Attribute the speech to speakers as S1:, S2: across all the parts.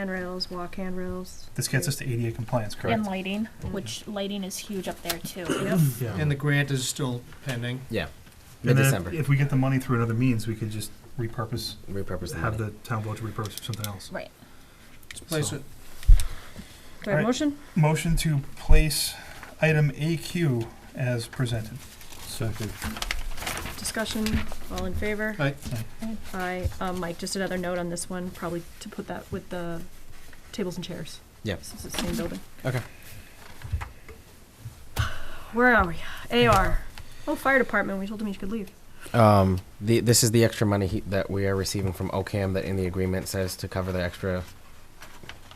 S1: handrails, walk handrails.
S2: This gets us to ADA compliance,
S3: And
S2: correct?
S3: lighting,
S4: Mm-hmm.
S3: which lighting is huge up there too.
S1: Yep.
S5: And the grant is still pending.
S4: Yeah.
S2: And then if-
S4: Mid-December.
S2: If we get the money through another means, we could just repurpose,
S4: Repurpose the
S2: have
S4: money.
S2: the town vote to repurpose for something else.
S3: Right.
S5: Let's place
S2: So-
S5: it.
S1: Do I have a
S2: Alright.
S1: motion?
S2: Motion to place item AQ as presented.
S6: Second.
S1: Discussion, all in favor?
S5: Aye.
S3: Aye.
S1: Aye. Um, Mike, just another note on this one, probably to put that with the tables and chairs.
S4: Yep.
S1: Since it's the same building.
S4: Okay.
S1: Where are we? AR. Oh, fire department, we told him he could leave.
S4: Um, the, this is the extra money he, that we are receiving from OCAM that in the agreement says to cover the extra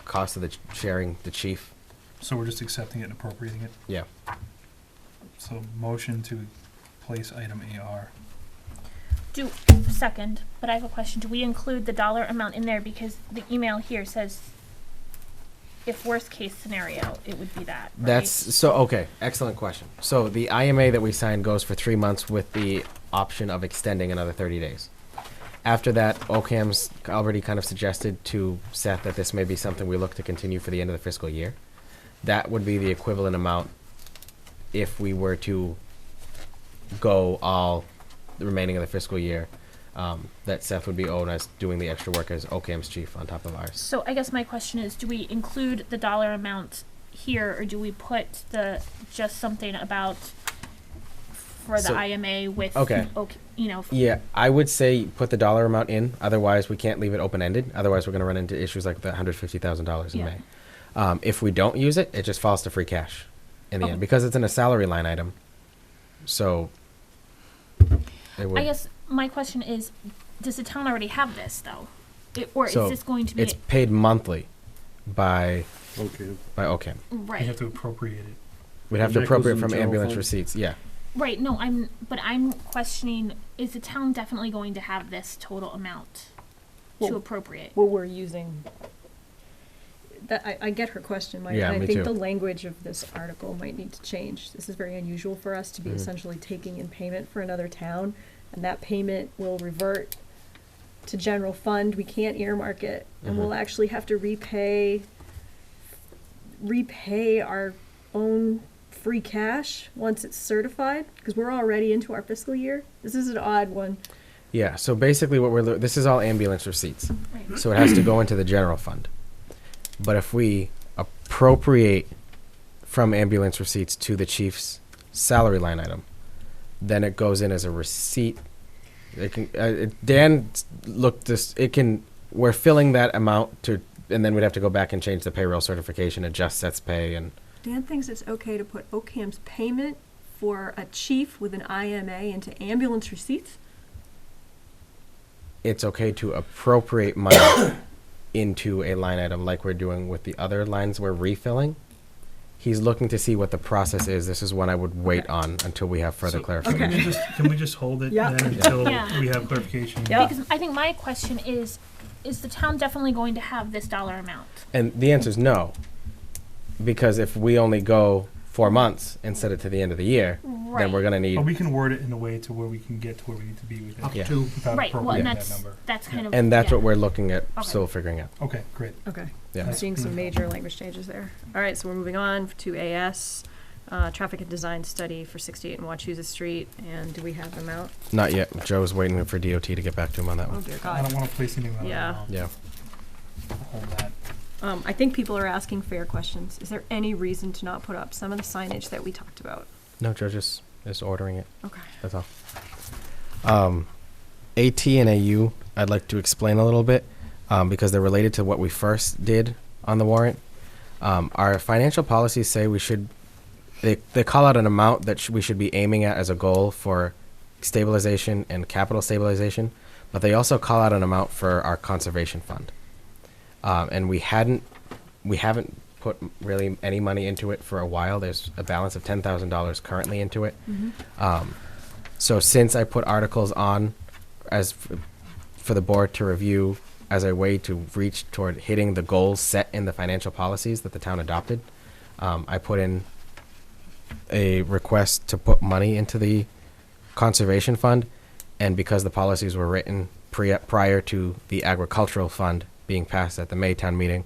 S4: cost of the ch- sharing the chief.
S2: So we're just accepting it and appropriating it.
S4: Yeah.
S2: So motion to place item AR.
S3: Do, second, but I have a question. Do we include the dollar amount in there? Because the email here says if worst case scenario, it would be that, right?
S4: That's so okay. Excellent question. So the IMA that we signed goes for three months with the option of extending another 30 days. After that, OCAM's already kind of suggested to Seth that this may be something we look to continue for the end of the fiscal year. That would be the equivalent amount if we were to go all the remaining of the fiscal year um, that Seth would be owed us doing the extra work as OCAM's chief on top of ours.
S3: So I guess my question is, do we include the dollar amount here or do we put the, just something about for the
S4: So-
S3: IMA with,
S4: Okay.
S3: ok- you know, f-
S4: Yeah, I would say put the dollar amount in. Otherwise, we can't leave it open ended. Otherwise, we're going to run into issues like the hundred fifty thousand dollars in
S3: Yeah.
S4: May. Um, if we don't use it, it just falls to free cash in the
S3: Okay.
S4: end because it's in a salary line item. So it would,
S3: I guess my question is, does the town already have this though? It, or is
S4: So,
S3: this going to be,
S4: it's paid monthly by
S6: Okay.
S4: by OCAM.
S2: We
S3: right,
S2: have to appropriate it.
S4: We'd have to
S6: That goes
S4: appropriate
S6: in the
S4: from
S6: general
S4: ambulance
S6: fund?
S4: receipts. Yeah,
S3: right, no, I'm, but I'm questioning, is the town definitely going to have this total amount to
S1: Well-
S3: appropriate?
S1: What we're using. That, I, I get her question, Mike. and
S4: Yeah,
S1: I
S4: me
S1: think
S4: too.
S1: the language of this article might need to change. This is very unusual for us to be
S4: Mhm.
S1: essentially taking in payment for another town, and that payment will revert to general fund. We can't earmark it, and we'll
S4: Mm-hmm.
S1: actually have to repay repay our own free cash once it's certified because we're already into our fiscal year. This is an odd one.
S4: yeah. So basically, what we're lo- this is all ambulance receipts.
S3: Right.
S4: So it has to go into the general fund. But if we appropriate from ambulance receipts to the chief's salary line item, then it goes in as a receipt. It can, uh, it, Dan s- looked this, it can, we're filling that amount to, and then we'd have to go back and change the payroll certification, adjust sets pay and,
S1: Dan thinks it's okay to put OCAM's payment for a chief with an IMA into ambulance receipts.
S4: it's okay to appropriate money into a line item like we're doing with the other lines we're refilling. He's looking to see what the process is. This is one I would wait on until we have further
S2: So-
S4: clarification.
S2: Can we just- Can we just hold it
S1: Yeah.
S2: then until
S3: Yeah.
S2: we have clarification?
S1: Yeah.
S3: Because I think my question is, is the town definitely going to have this dollar amount?
S4: And the answer is no, because if we only go four months and set it to the end of the year, then we're
S3: Right.
S4: gonna
S2: But
S4: need,
S2: we can word it in a way to where we can get to where we need to be with
S5: Up
S4: Yeah.
S2: it.
S5: to,
S2: without
S3: Right, well,
S2: appropriating
S3: and
S2: that
S3: that's,
S2: number.
S3: that's kind of.
S4: and that's
S3: yeah.
S4: what we're looking at,
S3: Okay.
S4: still figuring out.
S2: Okay, great.
S1: Okay.
S4: Yeah.
S1: I'm seeing some major language changes there. All right, so we're moving on to AS, uh, traffic and design study for sixty-eight and Wachusett Street, and do we have them out?
S4: Not yet. Joe's waiting for DOT to get back to him on that
S1: Oh
S4: one.
S1: dear
S2: I
S1: God.
S2: don't wanna place anything on it.
S1: Yeah.
S4: Yeah.
S2: Hold that.
S1: Um, I think people are asking fair questions. Is there any reason to not put up some of the signage that we talked about?
S4: No, Joe just is ordering it.
S1: Okay.
S4: That's all. Um, AT and AU, I'd like to explain a little bit um, because they're related to what we first did on the warrant. Um, our financial policies say we should, they, they call out an amount that sh- we should be aiming at as a goal for stabilization and capital stabilization, but they also call out an amount for our conservation fund. Um, and we hadn't, we haven't put m- really any money into it for a while. There's a balance of $10,000 currently into it. Um, so since I put articles on as f- for the board to review as a way to reach toward hitting the goals set in the financial policies that the town adopted, um, I put in a request to put money into the conservation fund, and because the policies were written pre- prior to the agricultural fund being passed at the May town meeting.